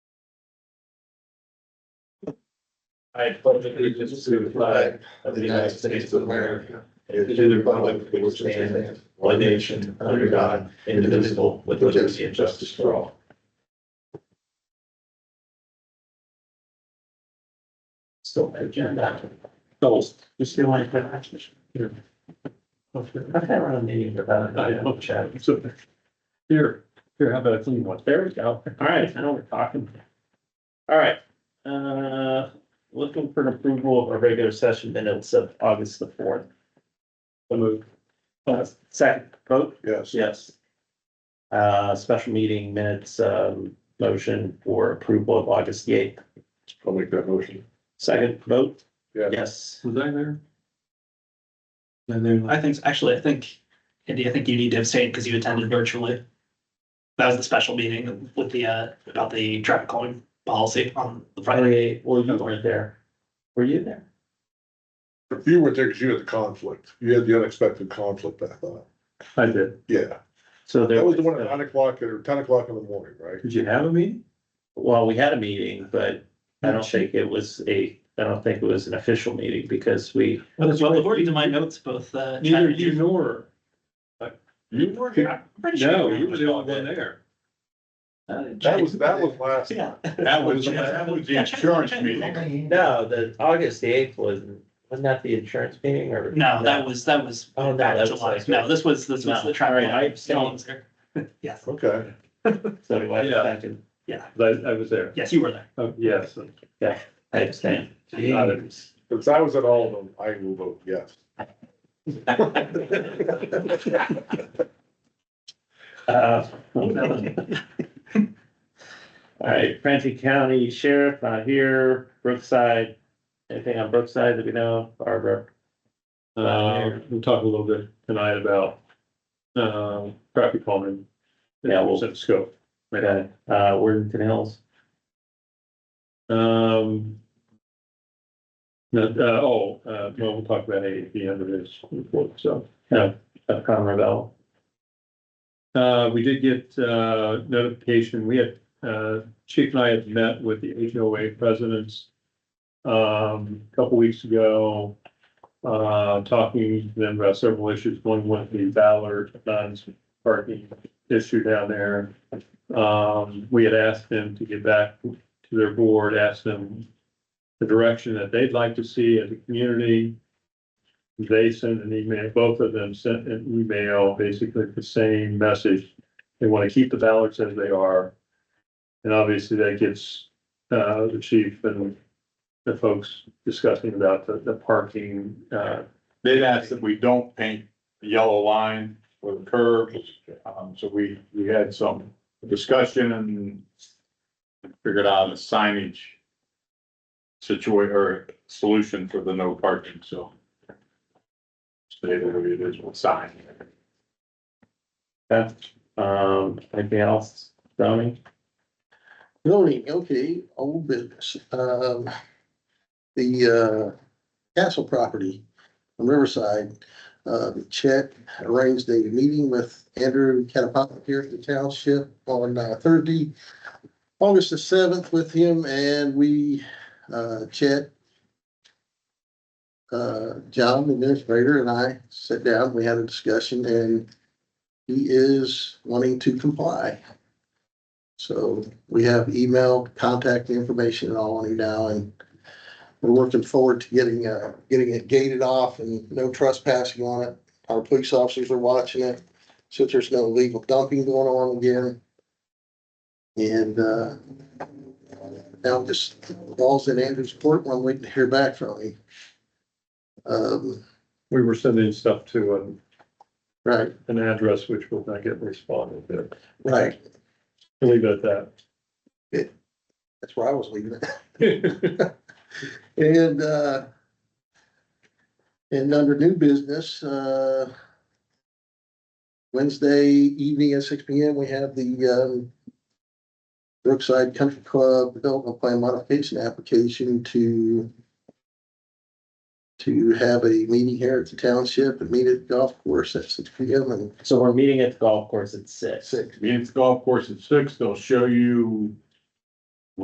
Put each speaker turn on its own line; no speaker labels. I pledge allegiance to the flag of the United States of America and to the republic for which it stands, one nation, under God, indivisible, with liberty and justice for all. Still agenda. Goals. You still want to have action? Here. I've had around a meeting about it. uh, I don't chat. So here, here, how about a clean one? There we go. All right, now we're talking. All right, uh, looking for an approval of our regular session minutes of August the fourth. The move. Uh, second vote,
Yes.
yes. Uh, special meeting minutes, um, motion for approval of August the eighth.
I'll make that motion.
Second vote,
Yeah.
yes.
Was I there?
I think, actually, I think, Andy, I think you need to abstain because you attended virtually. That was the special meeting with the, uh, about the traffic calling policy on the
Oh,
Friday.
Friday, well, you weren't there. Were you there?
You were there because you had the conflict. You had the unexpected conflict, I thought.
I did.
Yeah,
So there.
that was the one at nine o'clock or ten o'clock in the morning, right?
Did you have a meeting?
Well, we had a meeting, but I don't think it was a, I don't think it was an official meeting because we.
Well, according to my notes, both, uh. Chad
Neither
and
you nor. You were
here?
Pretty sure
No,
were
you were the
all
only one
there.
there.
Uh,
That
Chad-
was, that was last.
Yeah.
That was, that was the
Yeah, Chad-
insurance
Chad-
meeting.
No, the August eighth was, wasn't that the insurance meeting or?
No, that was, that was.
Oh, no,
back
that was
July.
like-
No, this was, this
No,
was the traffic.
all right, I abstained.
No one was there. Yes,
Okay,
So do I have
Yeah.
a second?
I, I was there.
yes, you were there.
Oh, yes.
I abstain.
Got it.
since I was at all of them, I will vote yes.
Uh, All right, Frantic County Sheriff, not here, Brookside, anything on Brookside that we know, of? Barbara?
Uh, we'll talk a little bit tonight about, um, traffic calming.
Yeah, we'll-
Set Scope.
Okay, uh, Worthington Hills,
Um. no, uh, oh, uh, well, we'll talk about A at the end of this report, so.
uh, Conroe Bell.
Uh, we did get, uh, notification, we had, uh, Chief and I had met with the HOA presidents. Um, a couple weeks ago, uh, talking to them about several issues, one was the Ballard Dunn's parking issue down there. Um, we had asked them to get back to their board, asked them the direction that they'd like to see as a community they sent an email, both of them sent an email, basically the same message. They want to keep the ballots as they are. And obviously that gets, uh, the chief and the folks discussing about the, the parking, uh,
They'd asked that we don't paint the yellow line or the curve, um, so we, we had some discussion and figured out a signage situation or solution for the no parking, so. Stay the way it is with sign.
Okay, um, anything else, Tony?
Zoning, okay, old business, um, the, uh, castle property on Riverside. Uh, Chet arranged a meeting with Andrew Catapult here at the township on uh, Thursday, August the seventh with him and we, uh, Chet. Uh, John, the administrator, and I sat down, we had a discussion and he is wanting to comply. So we have email, contact information and all on you now and we're looking forward to getting, uh, getting it gated off and no trespassing on it. Our police officers are watching it, since there's no legal dumping going on again. And, uh, now this ball's in Andrew's court, we're waiting to hear back from him. Um,
we were sending stuff to an,
right,
an address which will not get responded to.
right,
We'll Leave it at
that's where I was leaving it.
that.
And, uh, and under new business, uh, Wednesday evening at six P M, we have the, um, Brookside Country Club Development Plan Modification Application to to have a meeting here at the township and meet at the golf course at six P M and
So we're meeting at the golf course at six.
six.
Means golf course at six, they'll show you